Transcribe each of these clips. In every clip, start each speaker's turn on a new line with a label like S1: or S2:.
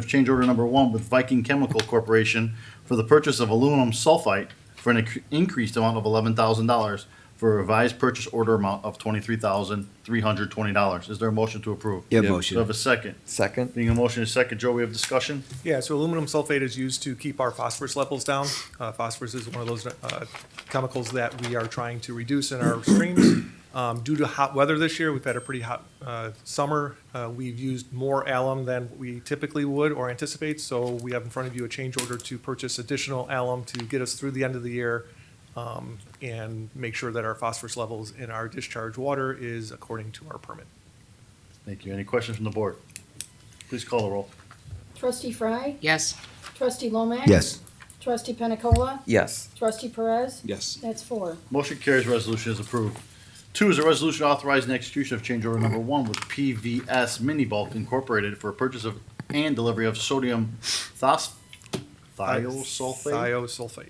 S1: of change order number one with Viking Chemical Corporation for the purchase of aluminum sulfite for an inc- increased amount of eleven thousand dollars for a revised purchase order amount of twenty-three thousand, three hundred twenty dollars. Is there a motion to approve?
S2: Yeah,
S1: Do
S2: motion.
S1: I have a second?
S2: Second?
S1: Being a motion is second, Joe, we have discussion?
S3: Yeah, so aluminum sulfate is used to keep our phosphorus levels down. Uh, Phosphorus is one of those uh, chemicals that we are trying to reduce in our streams. Um, Due to hot weather this year, we've had a pretty hot uh, summer. Uh, We've used more alum than we typically would or anticipate, so we have in front of you a change order to purchase additional alum to get us through the end of the year um, and make sure that our phosphorus levels in our discharge water is according to our permit.
S1: Thank you. Any questions from the board? Please call the roll.
S4: Trustee Fry?
S5: Yes.
S4: Trustee Lomax?
S2: Yes.
S4: Trustee Pena Cola?
S2: Yes.
S4: Trustee Perez?
S2: Yes.
S4: That's four.
S1: Motion carries, resolution is approved. Two is a resolution authorizing execution of change order number one with PVS Mini Bulk Incorporated for purchase of and delivery of sodium thos- thiosulfate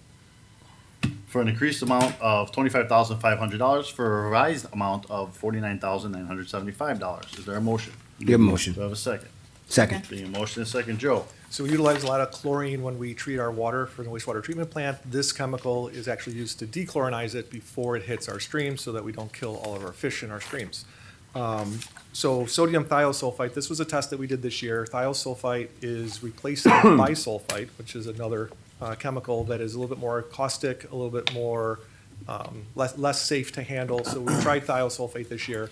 S3: Thiosulfate.
S1: for an increased amount of twenty-five thousand five hundred dollars for a revised amount of forty-nine thousand nine hundred seventy-five dollars. Is there a motion?
S2: You have a motion.
S1: Do I have a second?
S2: Second?
S1: Being a motion and a second, Joe.
S3: So we utilize a lot of chlorine when we treat our water for the wastewater treatment plant. This chemical is actually used to dechlorinize it before it hits our streams so that we don't kill all of our fish in our streams. Um, So sodium thiosulfite, this was a test that we did this year. Thiosulfite is replacing bisulfite, which is another uh, chemical that is a little bit more caustic, a little bit more, um, less, less safe to handle. So we tried thiosulfate this year.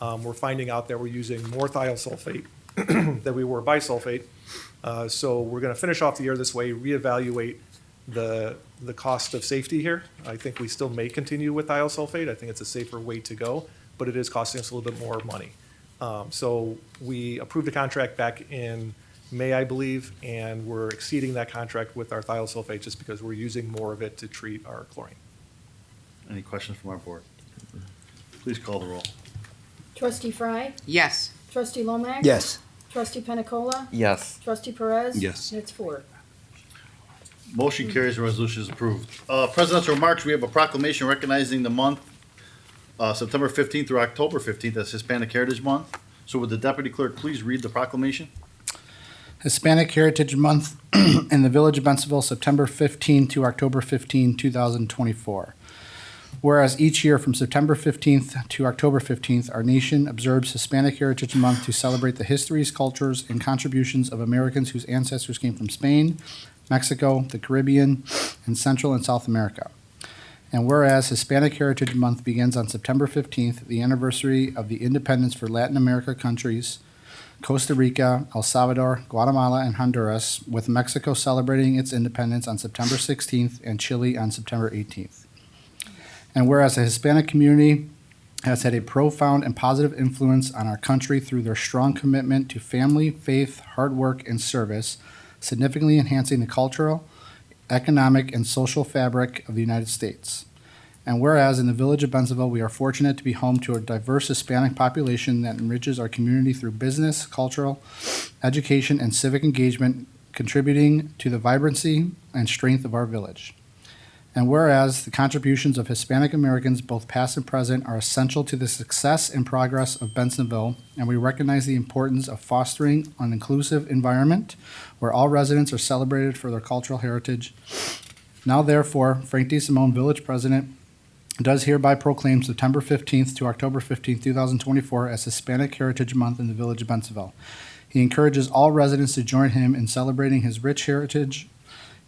S3: Um, We're finding out that we're using more thiosulfate than we were bisulfate. Uh, So we're going to finish off the year this way, reevaluate the, the cost of safety here. I think we still may continue with thiosulfate. I think it's a safer way to go, but it is costing us a little bit more money. Um, So we approved a contract back in May, I believe, and we're exceeding that contract with our thiosulfate just because we're using more of it to treat our chlorine.
S1: Any questions from our board? Please call the roll.
S4: Trustee Fry?
S5: Yes.
S4: Trustee Lomax?
S2: Yes.
S4: Trustee Pena Cola?
S2: Yes.
S4: Trustee Perez?
S2: Yes.
S4: That's four.
S1: Motion carries, the resolution is approved. Uh, Presidential remarks, we have a proclamation recognizing the month, uh, September 15th through October 15th as Hispanic Heritage Month. So would the deputy clerk please read the proclamation?
S6: Hispanic Heritage Month in the Village of Bensonville, September 15 to October 15, 2024. Whereas each year from September 15th to October 15th, our nation observes Hispanic Heritage Month to celebrate the histories, cultures, and contributions of Americans whose ancestors came from Spain, Mexico, the Caribbean, and Central and South America. And whereas Hispanic Heritage Month begins on September 15th, the anniversary of the independence for Latin America countries, Costa Rica, El Salvador, Guatemala, and Honduras, with Mexico celebrating its independence on September 16th and Chile on September 18th. And whereas the Hispanic community has had a profound and positive influence on our country through their strong commitment to family, faith, hard work, and service, significantly enhancing the cultural, economic, and social fabric of the United States. And whereas in the village of Bensonville, we are fortunate to be home to a diverse Hispanic population that enriches our community through business, cultural, education, and civic engagement, contributing to the vibrancy and strength of our village. And whereas the contributions of Hispanic Americans, both past and present, are essential to the success and progress of Bensonville, and we recognize the importance of fostering an inclusive environment where all residents are celebrated for their cultural heritage. Now, therefore, Frank D. Simone, Village President, does hereby proclaim September 15th to October 15th, 2024 as Hispanic Heritage Month in the Village of Bensonville. He encourages all residents to join him in celebrating his rich heritage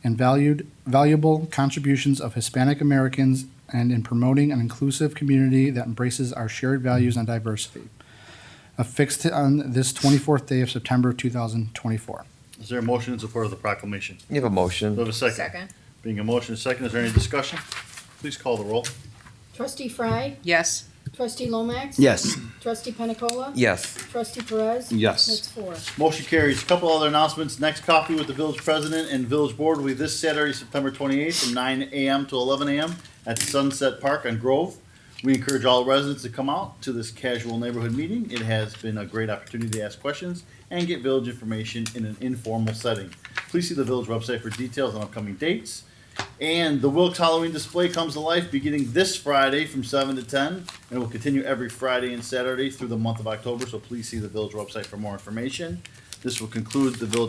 S6: and valued, valuable contributions of Hispanic Americans and in promoting an inclusive community that embraces our shared values and diversity. Affixed on this 24th day of September 2024.
S1: Is there a motion in support of the proclamation?
S2: You have a
S1: Do I have
S2: motion?
S1: a second? Being a motion and second, is there any discussion? Please call the roll.
S4: Trustee Fry?
S5: Yes.
S4: Trustee Lomax?
S2: Yes.
S4: Trustee Pena Cola?
S2: Yes.
S4: Trustee Perez?
S2: Yes.
S4: That's four.
S1: Motion carries. Couple other announcements. Next coffee with the village president and village board will be this Saturday, September twenty-eighth, from nine AM to eleven AM at Sunset Park on Grove. We encourage all residents to come out to this casual neighborhood meeting. It has been a great opportunity to ask questions and get village information in an informal setting. Please see the village website for details on upcoming dates. And the Wilkes Halloween display comes to life beginning this Friday from 7 to 10 and will continue every Friday and Saturday through the month of October. So please see the village website for more information. This will conclude the village